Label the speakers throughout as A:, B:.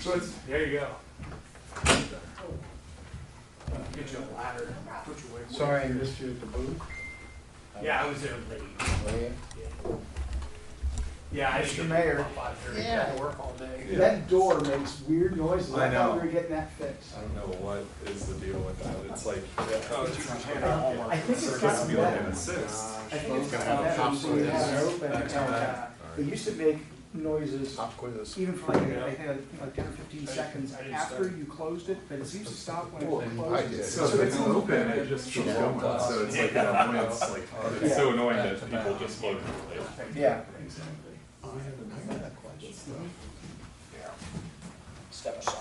A: So it's, there you go. Get you a ladder, put your weight.
B: Sorry I missed you at the booth.
A: Yeah, I was there late. Yeah, I
B: Mr.
A: should
B: Mayor.
A: up by thirty,
C: Yeah.
A: had to work all day.
B: That door makes weird noises.
D: I
B: I thought
D: know.
B: we were getting that fixed.
D: I don't know what is the deal with that. It's like, oh, it's usually ten
B: I think it's
D: It's supposed
B: gotten
D: to be like
B: better.
D: an assist.
B: I think it's
A: Gotta
B: gotten
A: have a
B: better.
A: top
B: So you
A: quiz.
B: have it open
D: Back
B: and
D: to
B: tell
D: that.
B: It used to make noises
D: Top quiz.
B: even for like, I think like ten or fifteen seconds
A: I didn't
B: after you closed it, but it seems to stop when it closes.
D: So if it's open, it just keeps going. So it's like, that annoyance, like, it's so annoying that people just look. like-
B: Yeah.
A: Step aside,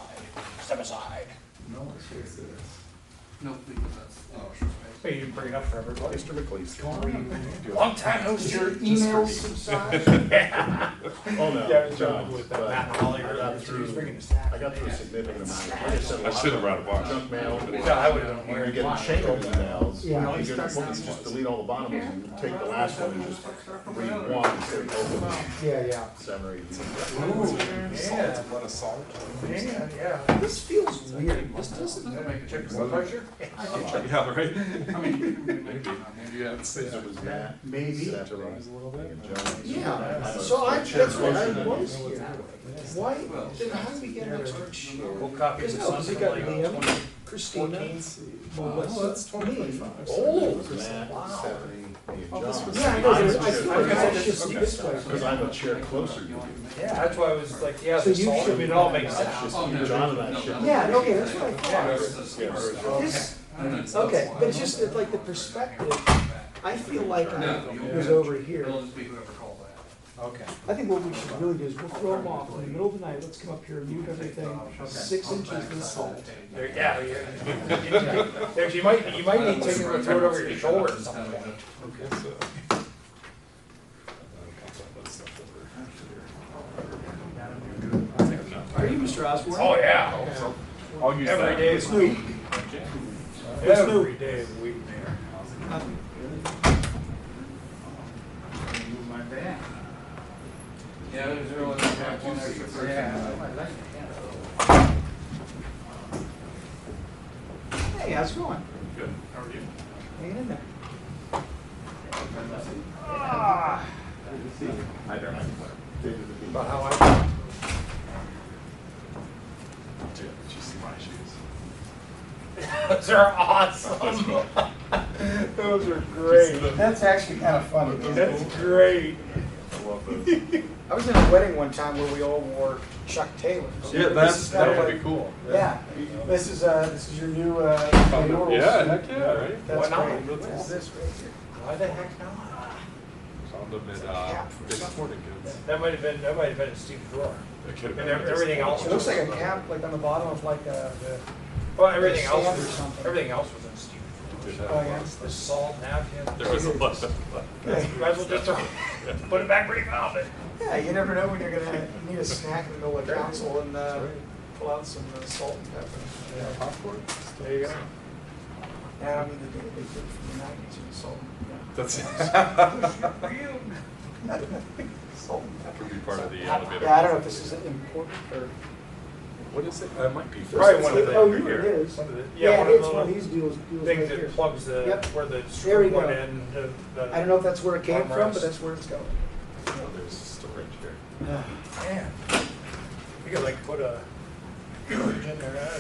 A: step aside.
E: No, please, that's. oh,
A: Wait, you didn't bring it up for everybody.
D: Mr. McLeese.
A: Long time no
B: Did your
A: see.
B: emails subside?
D: Oh,
A: Yeah, John with that Matt Holly
D: I
A: or
D: got
A: that,
D: through-
A: he's bringing his sack.
D: I got through a significant amount. I
F: should have brought a box.
D: Junk mail.
A: Yeah, I would've done.
D: You're getting chain of emails.
B: Yeah.
D: You're gonna probably just delete all the bottom ones and take the last one and just read one instead of open
B: Yeah, yeah.
D: summary.
A: Yeah,
F: Let us solve
A: yeah, yeah.
B: This feels weird. This doesn't.
E: Doesn't make a difference.
A: Blood pressure?
F: it. Yeah, right?
E: I mean, you can remove it, maybe.
F: Yeah, it's-
D: It was Matt.
B: Maybe.
D: Satterwright, and Jones.
B: Yeah, so I, that's what I was here. Why, then how do we get an extra chair?
A: We'll copy
B: There's
A: this
B: no,
A: on
B: we got
A: somebody else.
B: Liam, Christina,
D: Well, that's
B: Melissa, me.
D: 25.
B: Oh,
D: Matt,
B: wow.
D: Stephanie, me, and
F: Oh, this
D: John.
F: was-
B: Yeah, I know, I
D: Mine's
B: I
D: just-
B: thought
A: Okay.
B: it was just this way.
D: Because I'm a chair closer to you.
A: Yeah, that's why I was like, yeah,
B: So
A: this
B: you
A: all,
B: should-
A: it all makes
D: That's
A: sense.
D: just
E: Oh,
D: you,
E: no,
D: John and I
E: no,
D: share.
E: no.
B: Yeah, okay, that's what I
A: Yeah.
B: thought.
E: That's- that's the first.
B: This,
E: I don't know.
B: okay, but it's just that, like the perspective, I feel like I was over here.
E: It'll just be whoever called that.
A: Okay.
B: I think what we should really do is we'll throw them off in the middle of the night, let's come up here and mute everything, six inches of salt.
A: There, yeah, yeah. There's, you might, you
E: Uh,
A: might need to take it and throw it over your shoulder at some point.
B: Are you Mr. Osborne?
A: Oh, yeah.
F: I'll use
A: Every
F: that.
A: day of the week. Every day of the week, man.
E: Yeah, there's really one extra person.
B: Hey, how's it going?
F: Good. How are you?
B: Hanging in there.
A: Ah,
D: I don't.
A: About how I,
D: Did you see my shoes?
A: those are awesome. Those are great.
B: That's actually kind of funny.
A: That's great.
D: I love those.
B: I was in a wedding one time where we all wore Chuck Taylors.
F: Yeah, that's, that would be cool.
B: Yeah, this is, uh, this is your new, uh, mayoral
F: Oh, Yeah,
B: suit.
F: heck yeah, right?
B: That's
A: Why not?
B: great. What is this right here?
A: Why the heck not?
F: Found them at, uh, Dick's Sporting Goods.
A: That might have been, that might have been a stupid drawer.
F: It could have
A: And
F: been
A: ev-
F: just-
A: everything else
B: It looks like a cap, like on the bottom of like, uh, the,
A: Well, everything else
B: Sand or
A: was,
B: something.
A: everything else was in stupid
F: Did have
A: drawers.
B: oh,
F: a
B: yeah.
F: lot.
A: The salt napkin.
F: There was a lot of.
A: You might as well just throw, put it back where you found it.
B: yeah, you never know when you're gonna need a snack in the middle of council and, uh, pull out some uh, salt and pepper.
F: Popcorn?
A: There you go.
B: Yeah, I mean, the big, big thing from the nineties was salt and pepper.
F: That's,
B: Salt and pepper.
F: could be part of the elevator.
B: Yeah, I don't know if this is important or.
F: What is it? Uh, It might be.
A: Probably one of the.
B: Oh, here it is.
A: One of the-
B: Yeah,
A: Yeah,
B: it's
A: one
B: one
A: of the
B: of these deals, deals right
A: things that
B: here.
A: plugs the,
B: Yep.
A: where the
B: There we
A: screw went
B: go.
A: in. the- the-
B: I don't know if that's where it came from,
A: Armrest.
B: but that's where it's going.
F: Oh, There's storage here.
A: Man, we could like put a, in there,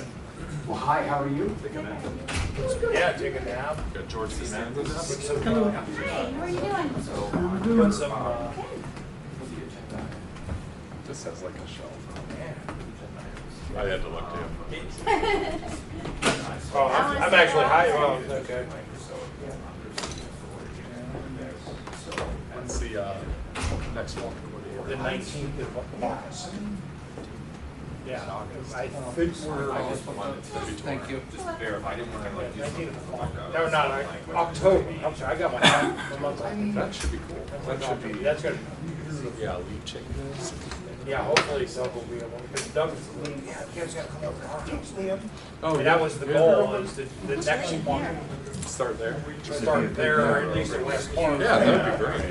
B: Well, hi, how are you?
F: Take a nap.
A: uh, yeah, take a nap,
F: Got George
A: put
F: Costanza's.
A: some, uh,
C: Hi, how are you doing?
A: put some, uh,
F: This has like a shelf.
A: man.
F: I had to look too.
A: Oh, I'm I'm actually high, oh, okay.
F: When's the, uh, next one?
A: The nineteenth of August. Yeah, I think we're,
E: Thank you.
F: verify, I didn't wanna like use
A: nineteenth of August,
F: something.
A: no, not, Oc- October, I'm sorry, I got my, the month off.
F: That should be cool. That should be,
A: That's gonna,
F: yeah, leaf chicken.
A: yeah, hopefully Doug will be able, because Doug's, yeah, Doug's gotta come over.
B: Liam.
F: Oh,
A: And that was the goal, was the, the next one,
F: Start there.
A: start there, or at least at West Point.
F: Yeah, that'd be great.